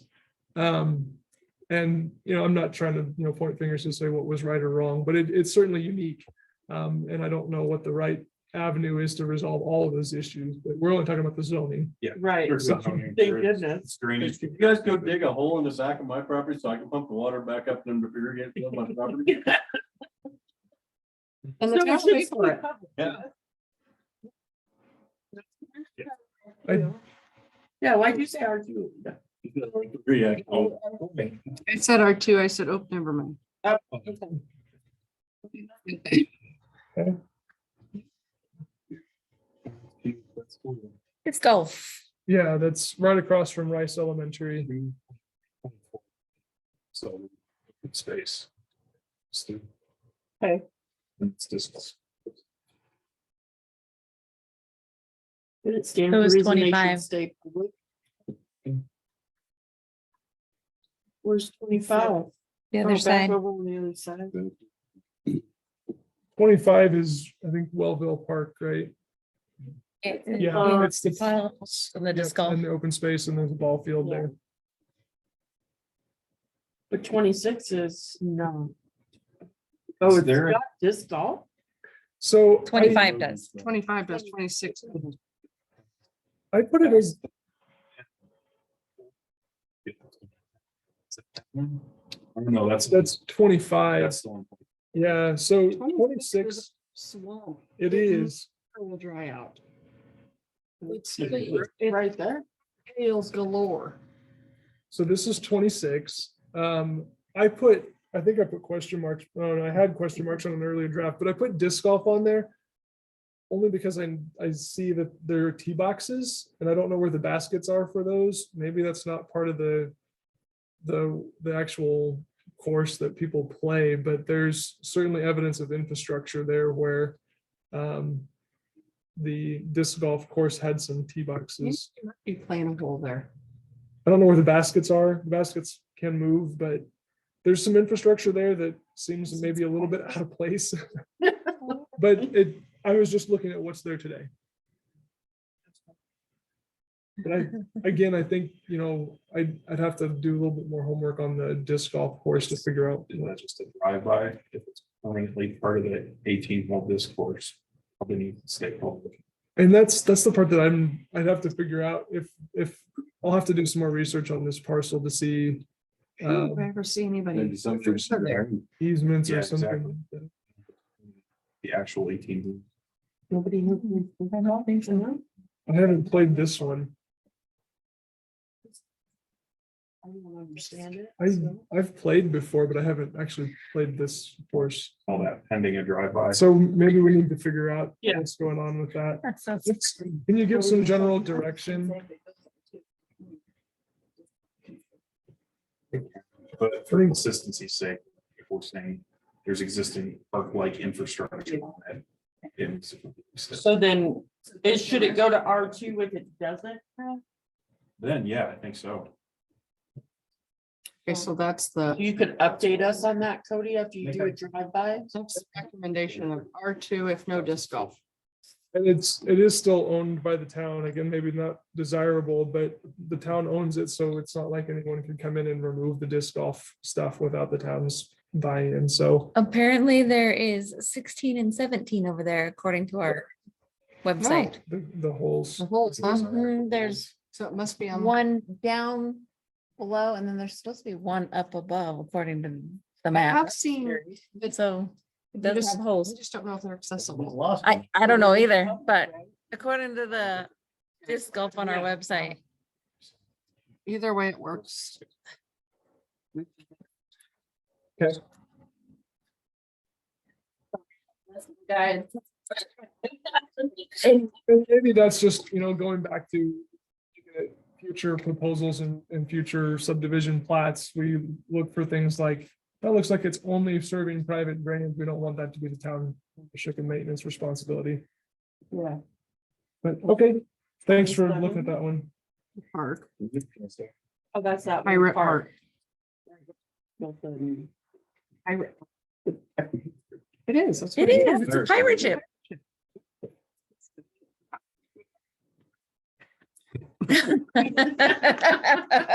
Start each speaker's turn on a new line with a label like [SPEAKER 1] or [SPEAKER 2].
[SPEAKER 1] Um, and, you know, I'm not trying to, you know, point fingers and say what was right or wrong, but it, it's certainly unique. Um, and I don't know what the right avenue is to resolve all of those issues, but we're only talking about the zoning.
[SPEAKER 2] Right.
[SPEAKER 1] Thank
[SPEAKER 2] Thank goodness.
[SPEAKER 3] If you guys go dig a hole in the back of my property so I can pump the water back up and irrigate it on my property.
[SPEAKER 4] And the
[SPEAKER 2] So
[SPEAKER 4] town
[SPEAKER 2] it's just
[SPEAKER 4] pays for it.
[SPEAKER 2] covered.
[SPEAKER 3] Yeah.
[SPEAKER 1] I-
[SPEAKER 2] Yeah, why'd you say R two?
[SPEAKER 3] Yeah, oh,
[SPEAKER 4] I said R two, I said, oh, never mind.
[SPEAKER 5] It's golf.
[SPEAKER 1] Yeah, that's right across from Rice Elementary.
[SPEAKER 6] So, good space. Okay.
[SPEAKER 2] Okay.
[SPEAKER 6] It's just.
[SPEAKER 2] Did it stand
[SPEAKER 5] It
[SPEAKER 2] for
[SPEAKER 5] was
[SPEAKER 2] reason they should
[SPEAKER 5] 25.
[SPEAKER 2] stay public? Where's twenty-five?
[SPEAKER 5] The
[SPEAKER 2] Oh,
[SPEAKER 5] other
[SPEAKER 2] back
[SPEAKER 5] side.
[SPEAKER 2] Over on the other side.
[SPEAKER 1] Twenty-five is, I think, Wellville Park, right? Yeah,
[SPEAKER 2] Uh,
[SPEAKER 1] it's the.
[SPEAKER 5] Well, and the disc
[SPEAKER 1] Yep,
[SPEAKER 5] golf.
[SPEAKER 1] And the open space and there's a ball field
[SPEAKER 2] Yeah.
[SPEAKER 1] there.
[SPEAKER 2] But twenty-six is no. Oh, it's
[SPEAKER 6] there-
[SPEAKER 2] got disc golf?
[SPEAKER 1] So. I-
[SPEAKER 5] Twenty-five does.
[SPEAKER 4] Twenty-five does twenty-six.
[SPEAKER 1] I put it as,
[SPEAKER 6] No, that's,
[SPEAKER 1] that's
[SPEAKER 6] that's,
[SPEAKER 1] twenty-five,
[SPEAKER 6] that's the one.
[SPEAKER 1] yeah, so twenty-six,
[SPEAKER 4] Swamp.
[SPEAKER 1] it is,
[SPEAKER 2] Will dry out.
[SPEAKER 4] It's
[SPEAKER 2] Right there.
[SPEAKER 4] Hills galore.
[SPEAKER 1] so this is twenty-six. Um, I put, I think I put question marks, oh, no, I had question marks on an earlier draft, but I put disc golf on there. Only because I, I see that there are tee boxes and I don't know where the baskets are for those, maybe that's not part of the. The, the actual course that people play, but there's certainly evidence of infrastructure there where. Um, the disc golf course had some tee boxes.
[SPEAKER 2] Be playing a hole there.
[SPEAKER 1] I don't know where the baskets are. The Baskets can move, but there's some infrastructure there that seems maybe a little bit out of place. But it, I was just looking at what's there today. But I, again, I think, you know, I'd, I'd have to do a little bit more homework on the disc golf course to figure out.
[SPEAKER 6] Is that just a drive-by, if it's permanently part of the eighteen hole discourse, probably need to stay public.
[SPEAKER 1] And that's, that's the part that I'm, I'd have to figure out if, if, I'll have to do some more research on this parcel to see
[SPEAKER 4] I've
[SPEAKER 1] um,
[SPEAKER 4] never seen anybody.
[SPEAKER 3] maybe something.
[SPEAKER 1] easements
[SPEAKER 6] Yeah,
[SPEAKER 1] or
[SPEAKER 6] exactly.
[SPEAKER 1] something.
[SPEAKER 6] The actual eighteen.
[SPEAKER 2] Nobody knew. I
[SPEAKER 1] I haven't played this one.
[SPEAKER 2] don't understand it.
[SPEAKER 1] I,
[SPEAKER 2] so.
[SPEAKER 1] I've played before, but I haven't actually played this course.
[SPEAKER 6] all that pending a drive-by.
[SPEAKER 1] So maybe we need to figure out
[SPEAKER 2] Yeah.
[SPEAKER 1] what's going on with that.
[SPEAKER 5] That sounds-
[SPEAKER 1] Can you give some general direction?
[SPEAKER 6] But for consistency's sake, if we're saying there's existing park-like infrastructure on it. it's-
[SPEAKER 2] So then, it, should it go to R two if it doesn't? have?
[SPEAKER 6] Then, yeah, I think so.
[SPEAKER 4] Okay, so that's the,
[SPEAKER 2] You could update us on that, Cody, after you do a drive by.
[SPEAKER 4] that's the recommendation of R two if no disc golf.
[SPEAKER 1] And it's, it is still owned by the town. Again, maybe not desirable, but the town owns it, so it's not like anyone can come in and remove the disc golf stuff without the town's buy-in. So
[SPEAKER 5] Apparently there is sixteen and seventeen over there according to our website.
[SPEAKER 1] the, the holes,
[SPEAKER 4] The holes, huh?
[SPEAKER 5] Mhm, There's
[SPEAKER 4] So it must be on.
[SPEAKER 5] one down below and then there's supposed to be one up above according to the map.
[SPEAKER 4] I've seen. it's-
[SPEAKER 5] So it does
[SPEAKER 4] just-
[SPEAKER 5] have
[SPEAKER 4] I
[SPEAKER 5] holes.
[SPEAKER 4] just don't know if they're accessible.
[SPEAKER 5] I, I don't know either, but according to the disc golf on our website.
[SPEAKER 4] Either way, it works.
[SPEAKER 5] Guys.
[SPEAKER 1] and and maybe that's just, you know, going back to looking at future proposals and, and future subdivision plats, we look for things like, that looks like it's only serving private drainage. We don't want that to be the town ownership and maintenance responsibility.
[SPEAKER 2] Yeah.
[SPEAKER 1] But, okay, thanks for looking at that one.
[SPEAKER 4] Park,
[SPEAKER 2] Oh, that's that. one
[SPEAKER 4] pirate
[SPEAKER 2] part.
[SPEAKER 4] park.
[SPEAKER 2] That's the-
[SPEAKER 4] Pirate. It is. that's
[SPEAKER 5] It
[SPEAKER 4] what it
[SPEAKER 5] is, it's a pirate ship.